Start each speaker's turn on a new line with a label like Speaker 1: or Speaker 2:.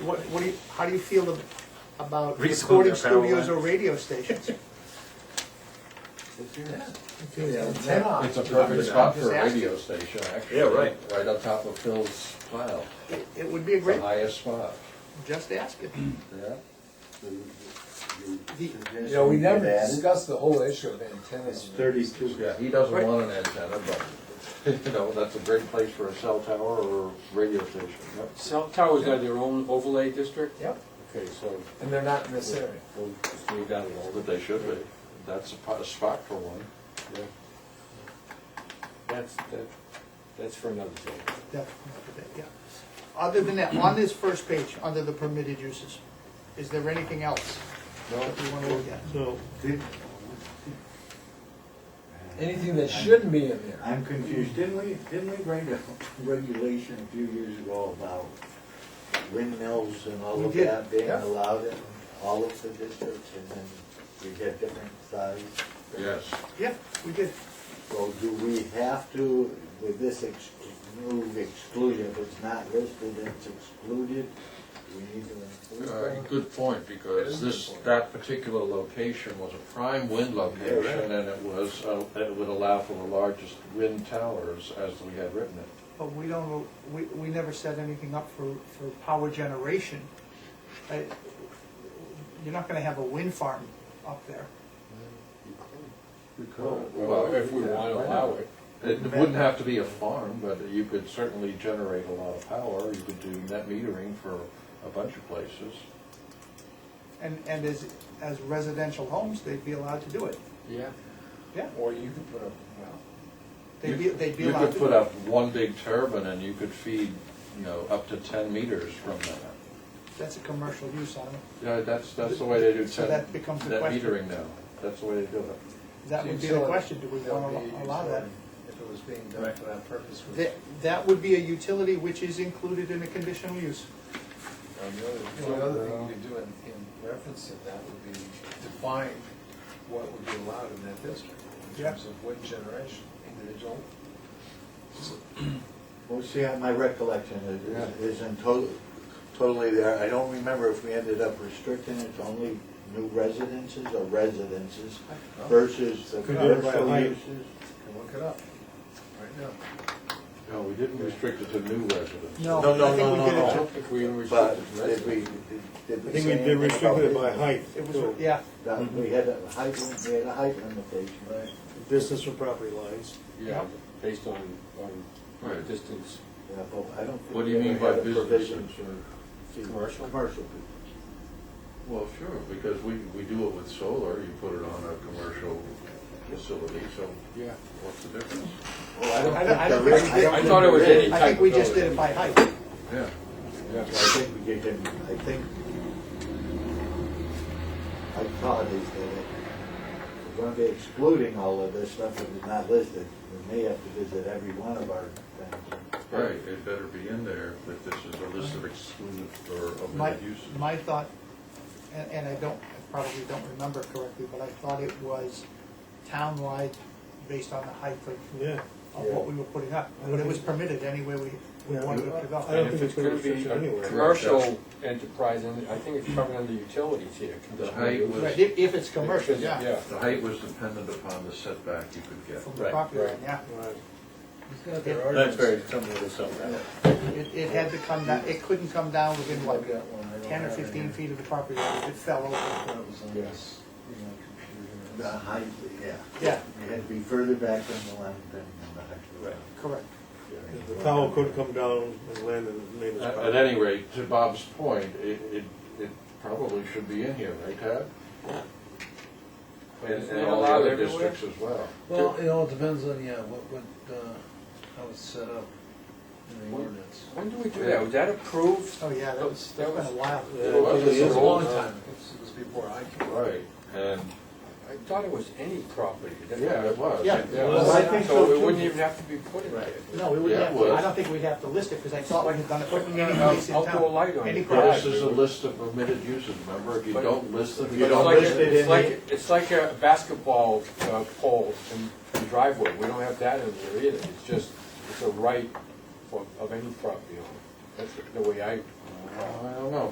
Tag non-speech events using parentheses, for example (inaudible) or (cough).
Speaker 1: what, what do you, how do you feel ab- about
Speaker 2: Reasonable
Speaker 1: recording
Speaker 2: their power
Speaker 1: studios or
Speaker 2: lines.
Speaker 1: radio stations?
Speaker 3: It's a perfect spot for a
Speaker 1: Disaster.
Speaker 3: radio station, actually.
Speaker 2: Yeah, right.
Speaker 3: Right on top of Phil's pile,
Speaker 1: It it would be a
Speaker 3: the
Speaker 1: great,
Speaker 3: highest spot,
Speaker 1: just ask it.
Speaker 3: yeah.
Speaker 4: You know, we never discussed the whole issue of antennas.
Speaker 5: thirty-two.
Speaker 3: Yeah, he doesn't
Speaker 1: Right.
Speaker 3: want an antenna, but, (laughs) you know, that's a great place for a cell tower or a radio station. Yep.
Speaker 6: Cell towers are their own overlay district?
Speaker 4: Yep,
Speaker 3: Okay, so
Speaker 4: and they're not in this area.
Speaker 3: we'll just leave that alone, but they should be. That's a po- a spot for one.
Speaker 6: That's, that- that's for another day.
Speaker 1: Yeah, yeah. Other than that, on this first page, under the permitted uses, is there anything else that we want to look at?
Speaker 5: So, did-
Speaker 4: Anything that shouldn't be in there.
Speaker 5: I'm confused, didn't we, didn't we write a regulation a few years ago about windmills and all
Speaker 1: We
Speaker 5: of
Speaker 1: did,
Speaker 5: that being
Speaker 4: yeah.
Speaker 5: allowed in all of the districts, and then we get different size?
Speaker 3: Yes.
Speaker 1: Yeah, we did.
Speaker 5: So do we have to, with this ex- new exclusion, if it's not listed, and it's excluded, we need to include
Speaker 3: Uh,
Speaker 5: that?
Speaker 3: Good point, because this, that particular location was a prime wind location, and it was, uh, it would allow for the largest wind towers as we had written it.
Speaker 1: But we don't, we, we never set anything up for, for power generation. I- You're not gonna have a wind farm up there.
Speaker 6: Well, if we want to allow it.
Speaker 3: It wouldn't have to be a farm, but you could certainly generate a lot of power, you could do net metering for a bunch of places.
Speaker 1: And, and as, as residential homes, they'd be allowed to do it.
Speaker 6: Yeah.
Speaker 1: Yeah,
Speaker 4: Or you could put a, well,
Speaker 1: they'd be, they'd be
Speaker 3: You
Speaker 1: allowed
Speaker 3: could
Speaker 1: to
Speaker 3: put
Speaker 1: do it.
Speaker 3: up one big turbine, and you could feed, you know, up to ten meters from that.
Speaker 1: That's a commercial use, I don't,
Speaker 3: Yeah, that's, that's the way they do
Speaker 1: So
Speaker 3: ten-
Speaker 1: that becomes the
Speaker 3: net
Speaker 1: question.
Speaker 3: metering now, that's the way they do it.
Speaker 1: that would be the question, do we want to allow that?
Speaker 4: If it was being done for that purpose. was-
Speaker 1: That, that would be a utility which is included in a conditional use.
Speaker 4: And uh, The other- the only other thing you could do in, in reference to that would be define what would be allowed in that district in
Speaker 1: Yeah.
Speaker 4: terms of wind generation, individual.
Speaker 5: Well, see, I- my recollection is- is isn't to- totally there. I don't remember if we ended up restricting it to only new residences or residences versus the
Speaker 4: Could do it by
Speaker 5: commercial
Speaker 4: height.
Speaker 5: uses.
Speaker 4: Can look it up right now.
Speaker 3: No, we didn't restrict it to new residents.
Speaker 1: No.
Speaker 5: No,
Speaker 1: I
Speaker 5: no,
Speaker 1: think
Speaker 5: no,
Speaker 1: we did it
Speaker 5: no, no.
Speaker 6: If we restrict
Speaker 5: But
Speaker 6: it to
Speaker 5: did
Speaker 6: residents.
Speaker 5: we, did
Speaker 7: I
Speaker 5: we
Speaker 7: think we
Speaker 5: say
Speaker 7: did
Speaker 5: anything about
Speaker 7: restrict it by
Speaker 5: business?
Speaker 7: height,
Speaker 1: It was,
Speaker 7: too.
Speaker 1: yeah,
Speaker 5: That we had a height, we had a height limitation, right?
Speaker 7: Distance from property lines.
Speaker 6: Yeah, based on, on
Speaker 3: Right.
Speaker 6: distance.
Speaker 5: Yeah, but I don't think
Speaker 3: What do you
Speaker 5: we
Speaker 3: mean
Speaker 5: ever
Speaker 3: by
Speaker 5: had a
Speaker 3: business?
Speaker 5: provision for
Speaker 6: Commercial?
Speaker 5: Commercial people.
Speaker 3: Well, sure, because we, we do it with solar, you put it on a commercial facility, so
Speaker 6: Yeah.
Speaker 3: what's the difference?
Speaker 5: Well, I
Speaker 1: I don't- I don't
Speaker 5: there
Speaker 1: think
Speaker 5: is-
Speaker 1: we did-
Speaker 5: don't
Speaker 6: I
Speaker 5: think
Speaker 6: thought it
Speaker 5: there
Speaker 6: was
Speaker 5: is.
Speaker 6: any-
Speaker 1: I think we just did it by height.
Speaker 3: Yeah.
Speaker 5: I think we did, get- I think, I thought is that if we're gonna be excluding all of this stuff that is not listed. We may have to visit every one of our things.
Speaker 3: Right, it better be in there that this is a list of excluded or
Speaker 1: My,
Speaker 3: omitted uses.
Speaker 1: my thought, and, and I don't, I probably don't remember correctly, but I thought it was townwide based on the height of,
Speaker 7: Yeah.
Speaker 1: of what we were putting up. But it was permitted anywhere we, we
Speaker 7: Yeah.
Speaker 1: wanted it to
Speaker 7: I
Speaker 1: go.
Speaker 7: don't
Speaker 6: And
Speaker 7: think it's
Speaker 6: if it's
Speaker 7: been
Speaker 6: going to be
Speaker 7: restricted
Speaker 6: a
Speaker 7: anywhere.
Speaker 6: commercial enterprise, and I think it's covered under utilities here.
Speaker 3: The height was-
Speaker 1: Right, If, if it's commercial, yeah,
Speaker 6: Yeah.
Speaker 3: The height was dependent upon the setback you could get.
Speaker 1: from the property line, yeah.
Speaker 7: Right.
Speaker 2: That's very similar to something.
Speaker 1: It, it had to come down, it couldn't come down within
Speaker 5: I've
Speaker 1: like
Speaker 5: got one, I don't
Speaker 1: ten or
Speaker 5: have it
Speaker 1: fifteen
Speaker 5: here.
Speaker 1: feet of the property line, it fell over.
Speaker 5: That was on
Speaker 4: Yes.
Speaker 5: the, you know, computer. The height, yeah.
Speaker 1: Yeah.
Speaker 5: It had to be further back than the line, than the height.
Speaker 1: Correct.
Speaker 7: The tower could come down and land in the neighbor's
Speaker 3: At,
Speaker 7: property.
Speaker 3: at any rate, to Bob's point, it, it, it probably should be in here, right, Ted? And, and all the
Speaker 6: Allowed
Speaker 3: other
Speaker 6: everywhere?
Speaker 3: districts as well.
Speaker 8: Well, it all depends on, yeah, what, what, uh, how it's set up in the
Speaker 6: Well-
Speaker 8: ordinance.
Speaker 6: When do we do that? Was that approved?
Speaker 1: Oh, yeah, that was, that's been a while.
Speaker 7: Yeah.
Speaker 3: Well,
Speaker 4: It was
Speaker 3: it's
Speaker 4: a long
Speaker 3: all-
Speaker 4: time, it was before I came.
Speaker 3: Right, and,
Speaker 6: I thought it was any property. That-
Speaker 3: yeah, it was.
Speaker 1: Yeah.
Speaker 3: Yeah.
Speaker 5: Well, I think so,
Speaker 6: So it
Speaker 5: too.
Speaker 6: wouldn't even have to be put in there.
Speaker 1: No, we wouldn't
Speaker 3: Yeah,
Speaker 1: have
Speaker 3: it
Speaker 1: to,
Speaker 3: was.
Speaker 1: I don't think we'd have to list it, because I thought we had done it for any
Speaker 6: I'll-
Speaker 1: place in
Speaker 6: I'll put a
Speaker 1: town.
Speaker 6: light on
Speaker 1: Any
Speaker 6: it.
Speaker 3: Yeah,
Speaker 1: garage.
Speaker 3: This is a list of permitted uses, remember, if you don't list them, you
Speaker 6: But
Speaker 3: don't
Speaker 6: it's
Speaker 3: list
Speaker 6: like,
Speaker 3: it.
Speaker 6: it's like, it's like a basketball uh, pole in the driveway, we don't have that in there either, it's just, it's a right for- of any property owner. That's the way I
Speaker 3: I don't know,